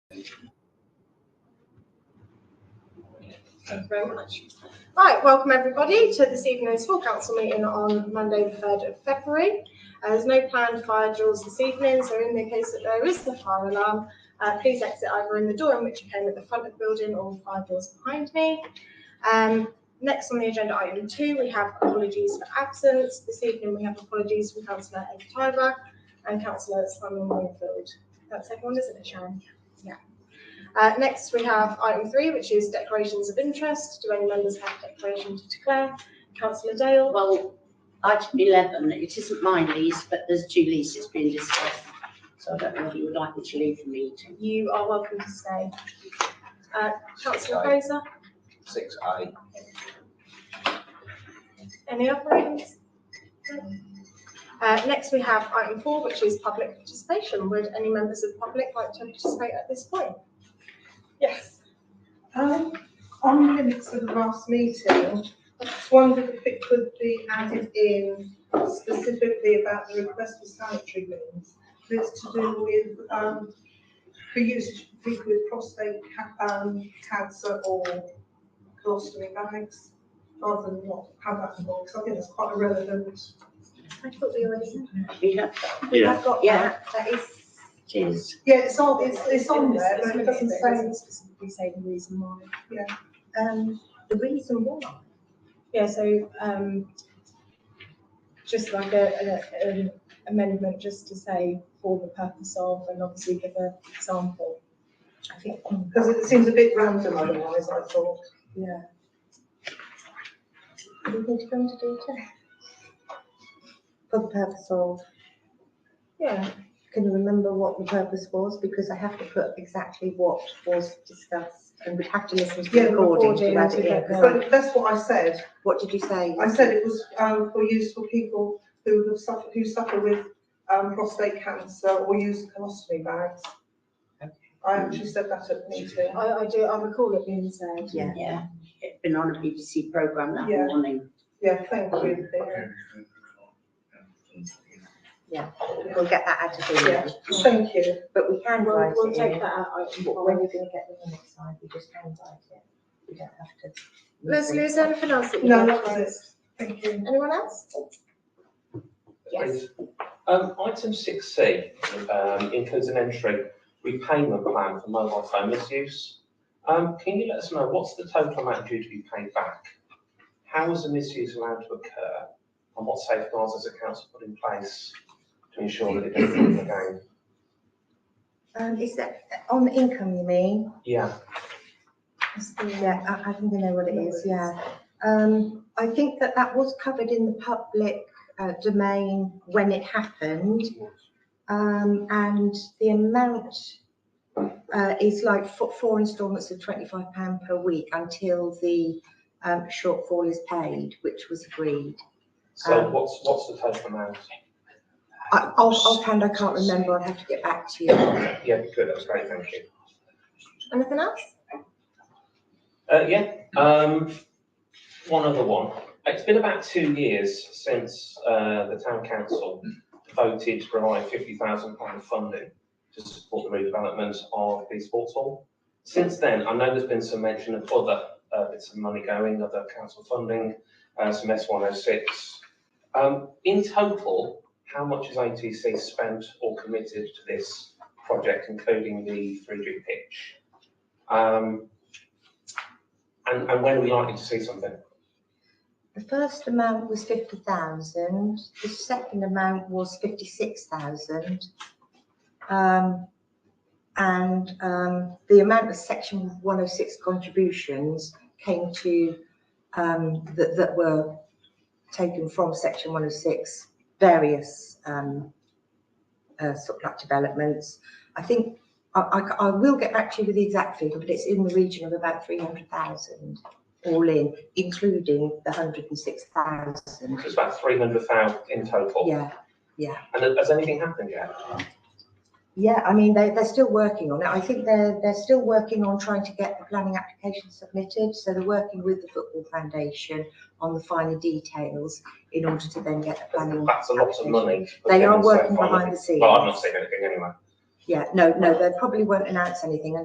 Thank you very much. Right, welcome everybody to this evening's full council meeting on Monday, the third of February. Uh, There's no planned fire drills this evening, so in the case that there is a fire alarm, uh, please exit either in the door in which you came at the front of the building or five doors behind me. Um, Next on the agenda, item two, we have apologies for absence. This evening, we have apologies from councillor Ed Tyler and councillor Simon Wingfield. That's everyone, isn't it, Sharon? Uh, next, we have item three, which is declarations of interest. Do any members have a declaration to declare? Councillor Dale? Well, item eleven, it isn't my lease, but there's two leases being discussed. So I don't know if you would like me to leave the meeting. You are welcome to stay. Uh, Councillor Aye. Fraser, Six I. any other items? No? Uh, next, we have item four, which is public participation. Would any members of the public like to participate at this point? Yes. Um, on the minutes of the last meeting, I just wondered if it could be added in specifically about the request for sanitary bins. It's to do with, um, for use, for people with prostate, ca- um, cancer or colostomy bags. Rather than not have that involved, because I think that's quite irrelevant. I thought we already had. We have, We have got Yeah. that. That is. cheers. Yeah, it's on, it's, it's on there, It's- but it it's- doesn't it say, doesn't Specifically say the reason why. yeah. Um, the reason why? Yeah, so, um, just like a, a- an amendment, just to say for the purpose of, and obviously give a sample. I think, hmm, Because it seems a bit random otherwise, I thought. yeah. Do you think going to do it? for the purpose of, Yeah, can you remember what the purpose was? Because I have to put exactly what was discussed and would have to listen to Yeah, the the recording to recording add to it in. get 'cause But that's what I said. What did you say? I said it was um, for use for people who have suffered, who suffer with um, prostate cancer or use colostomy bags. I actually said that at the meeting. I, I do, I recall it being said. Yeah. Yeah, it's been on a BBC programme that Yeah. morning. Yeah, thank you. Vic. We'll get that added Yeah, in, thank you. but we can We'll- write We'll it take in. that out. item But four. When you're gonna get the minutes signed, you just handwrite it. You don't have to. Leslie, is there anything else that you? No, want that to was raise? it. Thank you. Anyone else? Yes. Um, item six C, um, includes an entry repayment plan for mobile phone misuse. Um, can you let us know what's the total amount due to be paid back? How is the misuse allowed to occur? And what safeguards has the council put in place to ensure that it doesn't happen again? Um, is that, on the income, you mean? Yeah, Yeah, I, I think I know what it is, yeah. Um, I think that that was covered in the public uh, domain when it happened. Um, and the amount uh, is like four, four instalments of twenty-five pound per week until the um, shortfall is paid, which was agreed. so Um, what's, what's the total amount? I, off, offhand, I can't remember, I'll have to get back to you. Yeah, if you could, that's great, thank you. Anything else? Uh, yeah, um, one other one. It's been about two years since, uh, the town council voted to provide fifty thousand pound funding to support the redevelopment of the sports hall. Since then, I know there's been some mention of other, uh, bits of money going, other council funding, uh, some S one oh six. Um, in total, how much has ATC spent or committed to this project, including the three G pitch? Um, and, and when are we likely to see something? The first amount was fifty thousand, the second amount was fifty-six thousand. Um, and, um, the amount of section one oh six contributions came to, um, that, that were taken from section one oh six, various, um, uh, sort of like developments. I think, I, I c- I will get back to you with the exact figure, but it's in the region of about three hundred thousand all in, including the hundred and six thousand. It's about three hundred thousand in total. Yeah, And has anything happened yet? yeah, I mean, they, they're still working on it. I think they're, they're still working on trying to get the planning application submitted. So they're working with the Football Foundation on the finer details in order to then get the planning. That's a lot of money. for They are getting so working far. behind the scenes. Well, I've not seen anything anyway. Yeah, no, no, they probably won't announce anything